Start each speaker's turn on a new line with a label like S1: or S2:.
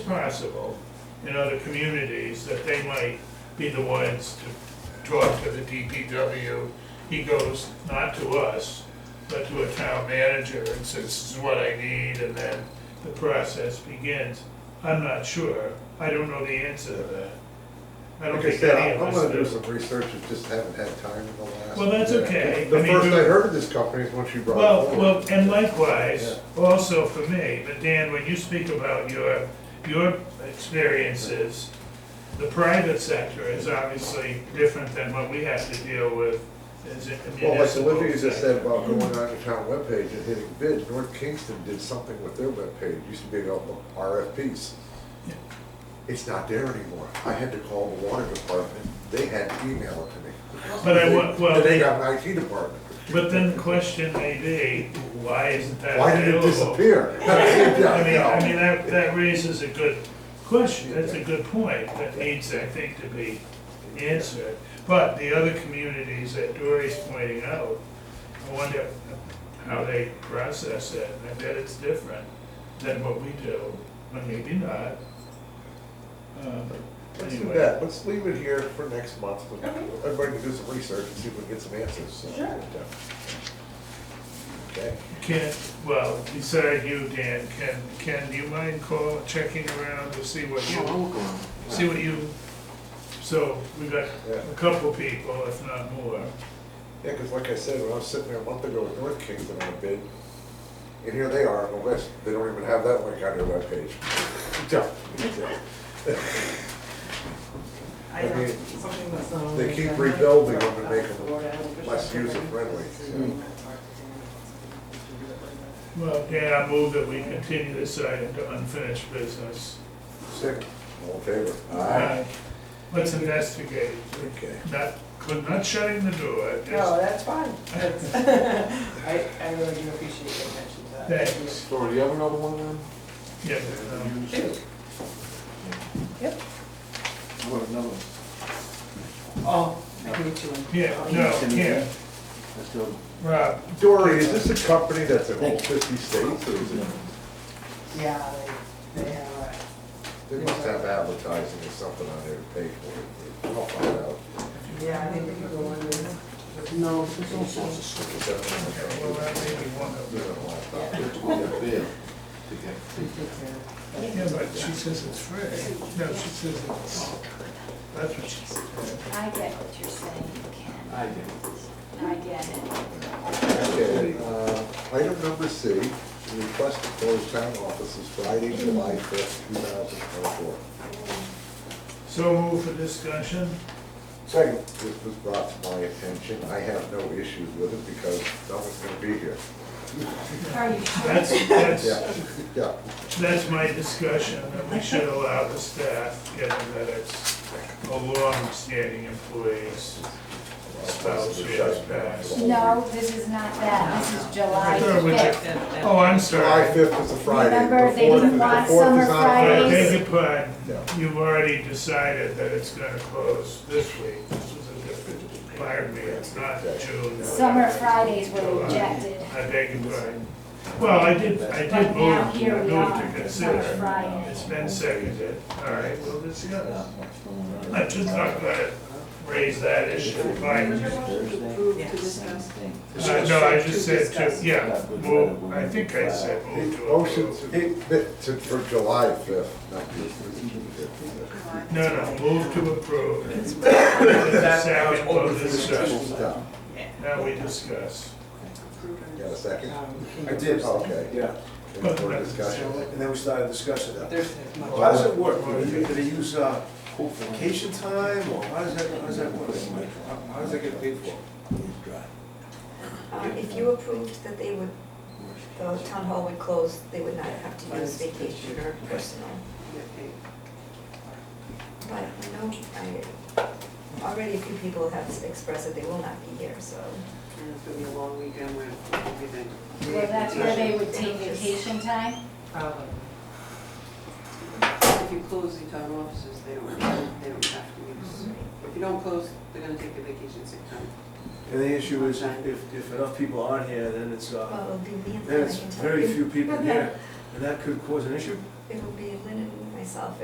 S1: possible in other communities, that they might be the ones to talk to the DPW. He goes not to us, but to a town manager and says, this is what I need, and then the process begins. I'm not sure. I don't know the answer to that. I don't
S2: Like I
S1: think
S2: said,
S1: any
S2: I-
S1: of
S2: I'm
S1: us
S2: gonna do
S1: do.
S2: some research, I just haven't had time in the last.
S1: Well, that's
S2: minute.
S1: okay. I
S2: The
S1: mean,
S2: first
S1: we-
S2: I heard of this company is once you brought it
S1: Well,
S2: forward.
S1: well, and likewise, also for me, but Dan, when you speak about your, your experiences, the private sector is obviously different than what we have to deal with as a
S2: Well, like
S1: municipal.
S2: Olivia just
S1: sector.
S2: said about going on your town webpage and hitting bid, North Kingston did something with their webpage, It used to be about RFPs.
S1: Yeah.
S2: It's not there anymore, I had to call the water department, they had to email it to me.
S1: But I wa-
S2: They-
S1: well-
S2: And they got an IT department,
S1: But then the question may be, why isn't that
S2: why did it
S1: available?
S2: disappear?
S1: I mean,
S2: Yeah,
S1: I
S2: no.
S1: mean, that, that raises a good question, that's a good point, that needs, I think, to be answered. But the other communities that Dory's pointing out, I wonder how they process it, I bet it's different than what we do, but maybe not. Um,
S2: Let's do
S1: anyway.
S2: that, let's leave it here for next month, We'll-
S3: Okay.
S2: everybody can do some research and see if we can get some answers. so-
S3: Sure.
S2: Okay,
S1: Can, well, beside you, Dan, can, can, do you mind call, checking around to see what you? See what you, so we got
S2: Yeah.
S1: a couple people, if not more.
S2: yeah, because like I said, when I was sitting there a month ago with North Kingston on a bid, and here they are on the list, they don't even have that link on their webpage. Yeah, yeah.
S3: I
S2: I
S3: know,
S2: mean,
S3: something that's not on
S2: they
S3: the
S2: keep
S3: agenda.
S2: rebuilding them and
S3: Uh,
S2: making them
S3: Florida Health
S2: less
S3: Officials
S2: user-friendly,
S3: Program.
S1: Well, Dan, I move that we continue this item to unfinished business.
S2: Second, all in favor?
S1: Uh, Let's investigate.
S2: Okay.
S1: Not, could not shutting the door,
S3: No,
S1: just,
S3: that's fine. That's- I, I really do appreciate your attention to that.
S1: thanks.
S4: Sorry, do you have another one then?
S1: Yeah, but, um,
S3: Two. Yep.
S4: What, another one?
S3: Oh, I can meet you in.
S1: yeah, no, yeah,
S4: Let's go.
S1: Rob,
S2: Dory, is this a company that's in all
S4: Thank you.
S2: fifty states, or is it,
S3: Yeah, they, they have, uh,
S2: they must have advertising or something on their page for it, I'll find out.
S3: yeah, I think we can go in there.
S4: No, there's all sorts of stuff.
S2: Is that on the-
S1: well, that may be one of
S2: They're
S1: them.
S2: on the laptop.
S3: We take
S1: Yeah, but she says it's free. No, she says it's, that's what she said.
S5: I get what you're saying, Ken.
S4: I did.
S5: I get it.
S2: Okay, uh, item number C, request to close town offices Friday, July fifth, two thousand twenty-four.
S1: So move for discussion?
S2: Second, this was brought to my attention, I have no issues with it because no one's gonna be here.
S5: Are you sure?
S1: That's, that's,
S2: Yeah, yeah,
S1: That's my discussion, that we should allow the staff, given that it's a long-standing employees. Spouse shares pass.
S5: No, this is not that. This is July
S1: I thought we
S5: fifth.
S1: did- Oh, I'm
S2: July
S1: sorry.
S2: fifth is a Friday. the
S5: Remember, they
S2: fourth is-
S5: didn't
S2: the
S5: want
S2: fourth is
S5: summer
S2: on a
S1: I
S2: Friday.
S5: Fridays.
S1: beg your pardon,
S2: Yeah.
S1: you've already decided that it's gonna close this week. This was a different, pardon me, it's not June.
S5: Summer Fridays were
S1: July.
S5: rejected.
S1: I beg your pardon. Well, I did, I
S5: But
S1: did
S5: now
S1: move,
S5: here we
S1: move to
S5: are, Summer
S1: consider.
S5: Friday.
S1: It's been seconded, all right, we'll discuss. I'm just not gonna raise that issue, fine. Uh, No, I just said, to- yeah, move, I think I said move to
S2: Motion
S1: approve.
S2: to, it- to- for July fifth, not just.
S1: No, no, move to approve. Second, we'll discuss.
S2: Yeah,
S1: Now we discuss.
S2: Got a second? Oh,
S3: Um,
S6: I did.
S2: Okay.
S6: Yeah,
S2: Any more discussion?
S6: and then we started discussing that.
S3: There's as much.
S6: How does it work? Do they- do they use uh, vacation time, or how does that, how does that work? How- How does that get paid for?
S7: Um, If you approved that they would, the town hall would close, they would not have to use vacation or personal. But, you know, I, already a few people have expressed that they will not be here, so.
S8: And it's gonna be a long weekend with everything.
S5: Well, that's where they would take vacation time?
S3: Probably.
S8: If you close the town offices, they don't, they don't have to use. If you don't close, they're gonna take the vacation sick time.
S6: And the issue is, if, if enough people aren't here, then it's,
S7: Well,
S6: uh,
S7: it'll be Lynn,
S6: then
S7: I
S6: it's
S7: can tell
S6: very
S7: you.
S6: few people here, and that could cause an issue.
S7: It'll be Lynn and myself